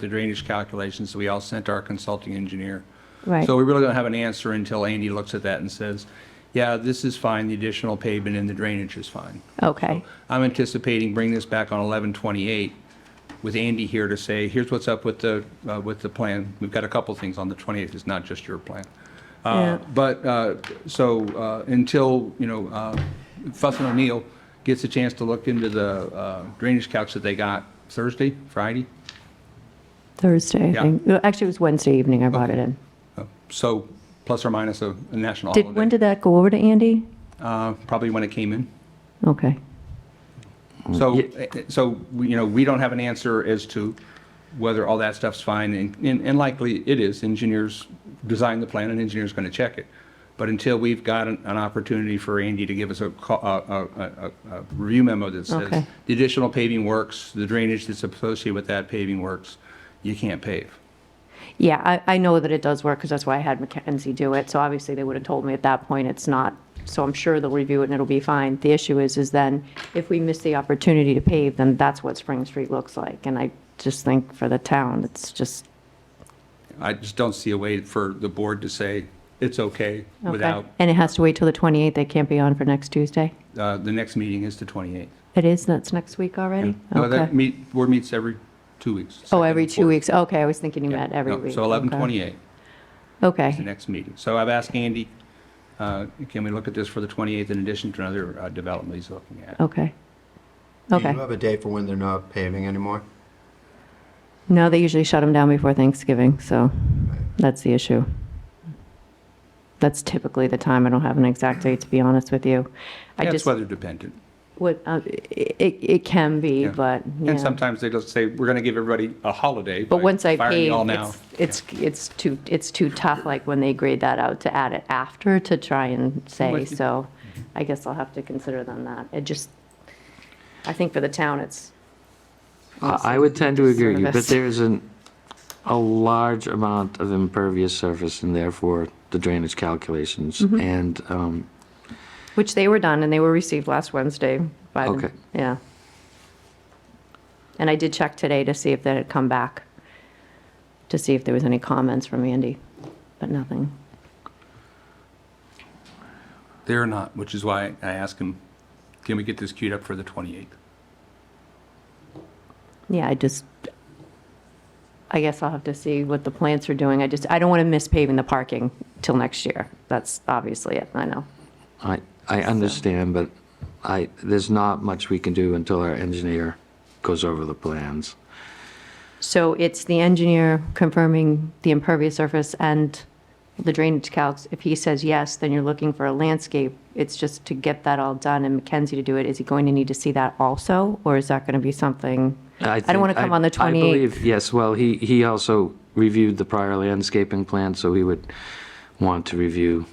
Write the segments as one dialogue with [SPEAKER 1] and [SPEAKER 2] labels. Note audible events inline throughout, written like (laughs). [SPEAKER 1] the drainage calculations we all sent to our consulting engineer.
[SPEAKER 2] Right.
[SPEAKER 1] So we really don't have an answer until Andy looks at that and says, yeah, this is fine, the additional pavement and the drainage is fine.
[SPEAKER 2] Okay,
[SPEAKER 1] I'm anticipating bringing this back on 1128 with Andy here to say, here's what's up with the, uh, with the plan. We've got a couple things on the 28th, it's not just your plan. Uh,
[SPEAKER 2] Yeah.
[SPEAKER 1] But, uh, so uh, until, you know, uh, Fuss and O'Neill gets a chance to look into the uh, drainage calcs that they got Thursday, Friday,
[SPEAKER 2] Thursday,
[SPEAKER 1] Yeah.
[SPEAKER 2] I think. Well, Actually, it was Wednesday evening I brought it in.
[SPEAKER 1] Uh, so plus or minus a a national
[SPEAKER 2] Did, when
[SPEAKER 1] holiday.
[SPEAKER 2] did that go over to Andy?
[SPEAKER 1] Uh, Probably when it came in.
[SPEAKER 2] Okay,
[SPEAKER 1] So, eh, so, we- you know, we don't have an answer as to whether all that stuff's fine, and- and and likely it is. Engineers design the plan, and engineer's going to check it. But until we've got an an opportunity for Andy to give us a ca- a, a, a, a review memo that says,
[SPEAKER 2] Okay.
[SPEAKER 1] the additional paving works, the drainage that's associated with that paving works, you can't pave.
[SPEAKER 2] yeah, I, I know that it does work, because that's why I had Mackenzie do it, so obviously they would have told me at that point it's not, so I'm sure they'll review it and it'll be fine. The issue is, is then, if we miss the opportunity to pave, then that's what Spring Street looks like, and I just think for the town, it's just,
[SPEAKER 1] I just don't see a way for the board to say, it's okay,
[SPEAKER 2] okay.
[SPEAKER 1] without,
[SPEAKER 2] And it has to wait till the 28th, they can't be on for next Tuesday?
[SPEAKER 1] uh, the next meeting is the 28th.
[SPEAKER 2] It is, that's next week already?
[SPEAKER 1] No, that
[SPEAKER 2] Okay.
[SPEAKER 1] meet, board meets every two weeks.
[SPEAKER 2] Oh,
[SPEAKER 1] second
[SPEAKER 2] every
[SPEAKER 1] and
[SPEAKER 2] two
[SPEAKER 1] fourth.
[SPEAKER 2] weeks, okay, I was thinking you
[SPEAKER 1] Yeah,
[SPEAKER 2] meant every
[SPEAKER 1] no,
[SPEAKER 2] week.
[SPEAKER 1] So
[SPEAKER 2] okay.
[SPEAKER 1] 1128 is the
[SPEAKER 2] Okay,
[SPEAKER 1] next meeting. So I've asked Andy, uh, can we look at this for the 28th in addition to another uh, development he's looking at?
[SPEAKER 2] okay,
[SPEAKER 3] Do you
[SPEAKER 2] okay.
[SPEAKER 3] have a date for when they're not paving anymore?
[SPEAKER 2] No, they usually shut them down before Thanksgiving, so that's the issue. That's typically the time, I don't have an exact date, to be honest with you. I
[SPEAKER 1] That's
[SPEAKER 2] just,
[SPEAKER 1] weather dependent.
[SPEAKER 2] what, uh, it, it can be,
[SPEAKER 1] Yeah.
[SPEAKER 2] but,
[SPEAKER 1] And
[SPEAKER 2] yeah.
[SPEAKER 1] sometimes they just say, we're going to give everybody a holiday.
[SPEAKER 2] But
[SPEAKER 1] by
[SPEAKER 2] once I
[SPEAKER 1] firing
[SPEAKER 2] pave,
[SPEAKER 1] you all now."
[SPEAKER 2] it's, it's, it's too, it's too tough, like when they grade that out, to add it after to try and say,
[SPEAKER 1] with you.
[SPEAKER 2] so I guess I'll have to consider them that. It just, I think for the town, it's,
[SPEAKER 4] I I would tend to agree, with you, but
[SPEAKER 2] Service.
[SPEAKER 4] there isn't a large amount of impervious surface and therefore the drainage calculations.
[SPEAKER 2] Mm-hmm.
[SPEAKER 4] And um,
[SPEAKER 2] which they were done and they were received last Wednesday by
[SPEAKER 4] Okay.
[SPEAKER 2] them, yeah. And I did check today to see if that had come back, to see if there was any comments from Andy, but nothing.
[SPEAKER 1] They're not, which is why I asked him, can we get this queued up for the 28th?
[SPEAKER 2] Yeah, I just, I guess I'll have to see what the plants are doing. I just, I don't want to miss paving the parking till next year. That's obviously it, I know.
[SPEAKER 4] I, I understand, but I, there's not much we can do until our engineer goes over the plans.
[SPEAKER 2] So it's the engineer confirming the impervious surface and the drainage calcs. If he says yes, then you're looking for a landscape. It's just to get that all done and Mackenzie to do it. Is he going to need to see that also? Or is that going to be something? I
[SPEAKER 4] think-
[SPEAKER 2] don't want to come on the 28th.
[SPEAKER 4] I believe, yes, well, he, he also reviewed the prior landscaping plan, so he would want to review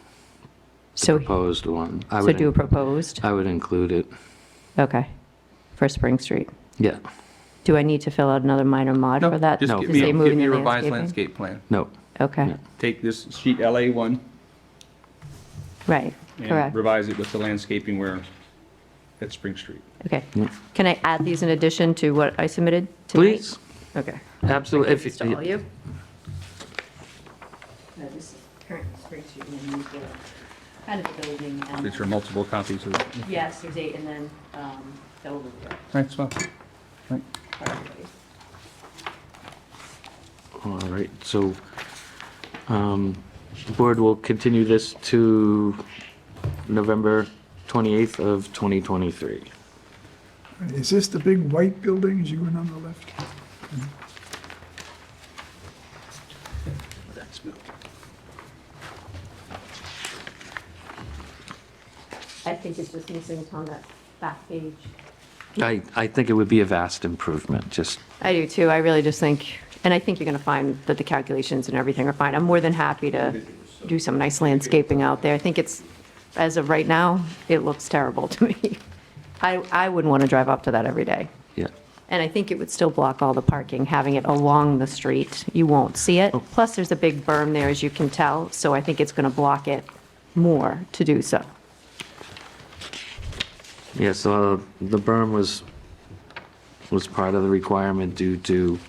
[SPEAKER 2] So,
[SPEAKER 4] proposed one. I
[SPEAKER 2] so
[SPEAKER 4] would Uh,
[SPEAKER 2] do
[SPEAKER 4] in-
[SPEAKER 2] proposed?
[SPEAKER 4] I would include it,
[SPEAKER 2] Okay, for Spring Street.
[SPEAKER 4] yeah,
[SPEAKER 2] Do I need to fill out another minor mod
[SPEAKER 1] No,
[SPEAKER 2] for that?
[SPEAKER 1] Just
[SPEAKER 4] No.
[SPEAKER 1] give
[SPEAKER 2] to
[SPEAKER 1] me,
[SPEAKER 2] say
[SPEAKER 1] a-
[SPEAKER 2] moving
[SPEAKER 1] give me a
[SPEAKER 2] the
[SPEAKER 1] revised
[SPEAKER 2] landscaping?
[SPEAKER 1] landscape plan.
[SPEAKER 4] no,
[SPEAKER 2] Okay,
[SPEAKER 1] Take this sheet LA1
[SPEAKER 2] right,
[SPEAKER 1] and
[SPEAKER 2] correct.
[SPEAKER 1] revise it with the landscaping where, at Spring Street.
[SPEAKER 2] Okay. Can I add these in addition to what I submitted tonight?
[SPEAKER 4] please,
[SPEAKER 2] Okay.
[SPEAKER 4] absolutely. If
[SPEAKER 2] These to all you? No, this is current spreadsheet and then you get kind of the building and.
[SPEAKER 1] These are multiple copies of,
[SPEAKER 2] Yes, there's eight and then, um, the overview.
[SPEAKER 1] thanks, well, right.
[SPEAKER 4] All right, so, um, the board will continue this to November 28th of 2023.
[SPEAKER 5] Is this the big white building as you went on the left?
[SPEAKER 1] That's moved.
[SPEAKER 2] I think it's just missing it's on that back page.
[SPEAKER 4] I, I think it would be a vast improvement, just,
[SPEAKER 2] I do too. I really just think, and I think you're going to find that the calculations and everything are fine. I'm more than happy to do some nice landscaping out there. I think it's, as of right now, it looks terrible to me. (laughs) I, I wouldn't want to drive up to that every day.
[SPEAKER 4] yeah.
[SPEAKER 2] And I think it would still block all the parking, having it along the street. You won't see it. Plus, there's a big berm there, as you can tell, so I think it's going to block it more to do so.
[SPEAKER 4] uh, Yeah, so the berm was, was part of the requirement due to